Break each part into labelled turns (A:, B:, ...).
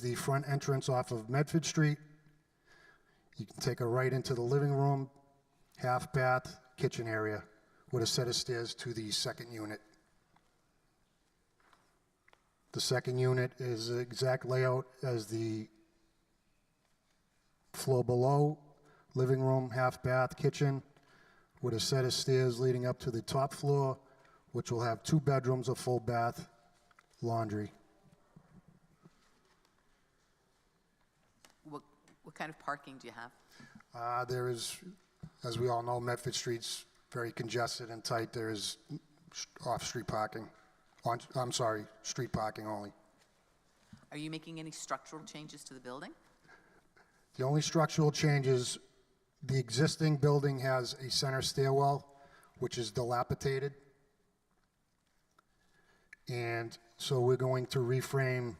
A: the front entrance off of Medford Street. You can take a right into the living room, half bath, kitchen area, with a set of stairs to the second unit. The second unit is the exact layout as the floor below, living room, half bath, kitchen, with a set of stairs leading up to the top floor, which will have two bedrooms, a full bath, laundry.
B: What, what kind of parking do you have?
A: Uh, There is, as we all know, Medford Street's very congested and tight. There is off-street parking, on, I'm sorry, street parking only.
B: Are you making any structural changes to the building?
A: The only structural change is the existing building has a center stairwell, which is dilapidated. And so we're going to reframe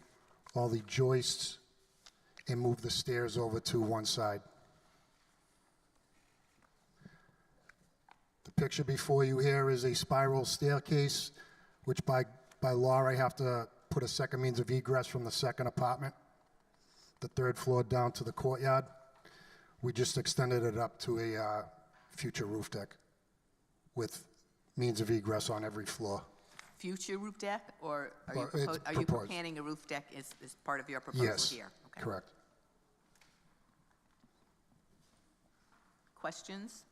A: all the joists and move the stairs over to one side. The picture before you here is a spiral staircase, which by, by law, I have to put a second means of egress from the second apartment the third floor down to the courtyard. We just extended it up to a uh, future roof deck with means of egress on every floor.
B: Future roof deck, or are you,
A: Well, it's
B: propo- are you
A: proposed.
B: planning a roof deck as, as part of your
A: Yes,
B: proposal here? Okay.
A: correct.
B: Questions?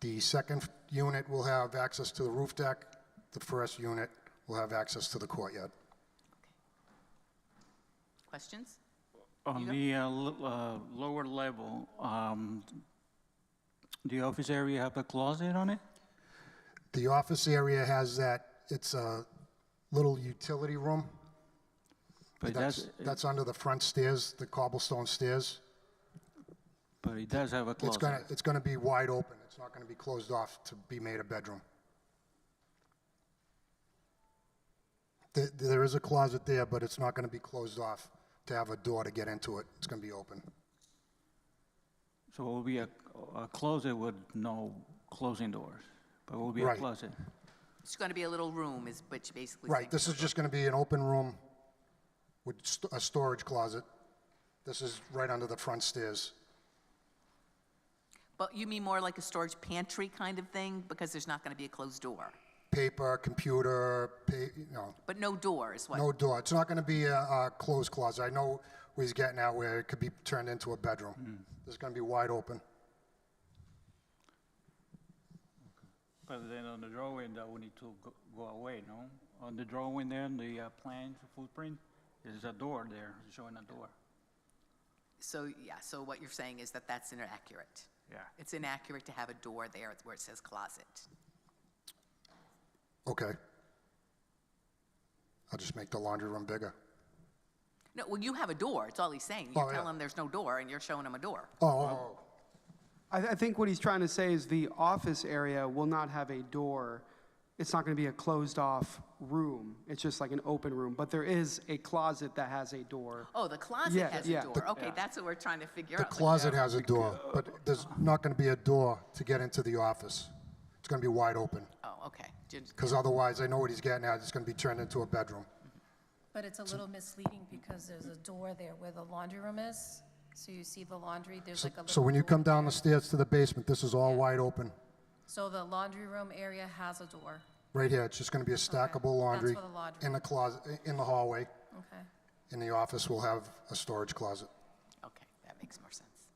A: The second f- unit will have access to the roof deck. The first unit will have access to the courtyard.
B: Questions?
C: On the uh, l- uh, lower level, um, the office area have a closet on it?
A: The office area has that, it's a little utility room.
C: But
A: That's,
C: that's,
A: that's under the front stairs, the cobblestone stairs.
C: but it does have a
A: It's gonna,
C: closet.
A: it's gonna be wide open. It's not gonna be closed off to be made a bedroom. There, there is a closet there, but it's not gonna be closed off to have a door to get into it. It's gonna be open.
C: So it will be a a closet with no closing doors, but it will be a
A: Right.
C: closet.
B: It's going to be a little room, is what you basically
A: Right,
B: saying.
A: this is just gonna be an open room with st- a storage closet. This is right under the front stairs.
B: But you mean more like a storage pantry kind of thing, because there's not going to be a closed door?
A: Paper, computer, pa, you know,
B: But no door is what?
A: no door. It's not gonna be a, a closed closet. I know where he's getting at where it could be turned into a bedroom. This is gonna be wide open.
C: But then on the drawing, that will need to go- go away, no? On the drawing there, the uh, plan footprint, there's a door there, showing a door.
B: So, yeah, so what you're saying is that that's inaccurate.
C: Yeah.
B: It's inaccurate to have a door there where it says closet.
A: Okay. I'll just make the laundry room bigger.
B: No, well, you have a door, it's all he's saying. You
A: Oh,
B: tell
A: yeah.
B: him there's no door, and you're showing him a door.
A: Oh, oh,
D: I, I think what he's trying to say is the office area will not have a door. It's not going to be a closed off room. It's just like an open room, but there is a closet that has a door.
B: Oh, the closet
D: Yeah,
B: has
D: yeah.
B: a door.
D: The-
B: Okay, that's what we're trying to figure
A: the
B: out. like-
A: closet has a door, but there's not going to be a door to get into the office. It's going to be wide open,
B: Oh, okay. Ju-
A: because otherwise, I know what he's getting at, it's going to be turned into a bedroom.
E: But it's a little misleading because there's a door there where the laundry room is. So you see the laundry, there's
A: So-
E: like a little.
A: So when you come
E: door.
A: down the stairs to the basement, this is all wide open.
E: So the laundry room area has a door.
A: Right here, it's just going to be a stackable laundry
E: for the laundry.
A: in the closet, in the hallway.
E: Okay.
A: In the office, we'll have a storage closet.
B: Okay, that makes more sense.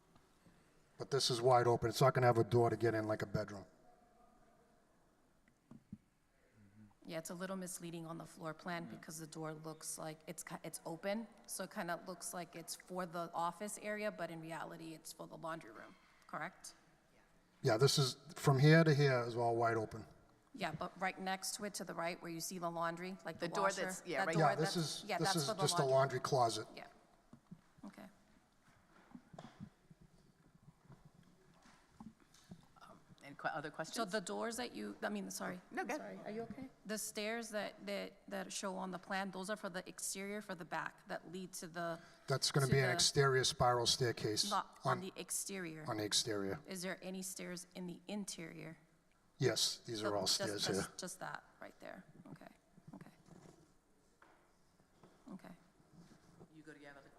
A: But this is wide open, it's not going to have a door to get in like a bedroom.
E: Yeah, it's a little misleading on the floor
A: Mm.
E: plan because the door looks like it's, ki- it's open. So it kind of looks like it's for the office area, but in reality, it's for the laundry room, correct?
A: Yeah, this is, from here to here is all wide open.
E: Yeah, but right next to it, to the right, where you see the laundry, like the
B: The door
E: washer,
B: that's- yeah,
E: that
B: right-
E: door,
A: Yeah, this
E: that's-
A: is,
E: yeah,
A: this
E: that's
A: is
E: for the
A: just a laundry closet.
E: Yeah. Okay.
B: And que- other
E: So
B: questions?
E: the doors that you, I mean, sorry.
B: No, go ahead.
E: Sorry, are you okay? The stairs that, that, that show on the plan, those are for the exterior, for the back, that lead to the,
A: That's going to
E: to
A: be an
E: the-
A: exterior spiral staircase
E: not on
A: on,
E: the exterior.
A: on the exterior.
E: Is there any stairs in the interior?
A: Yes, these are all
E: Just-
A: stairs
E: just-
A: here.
E: Just that, right there.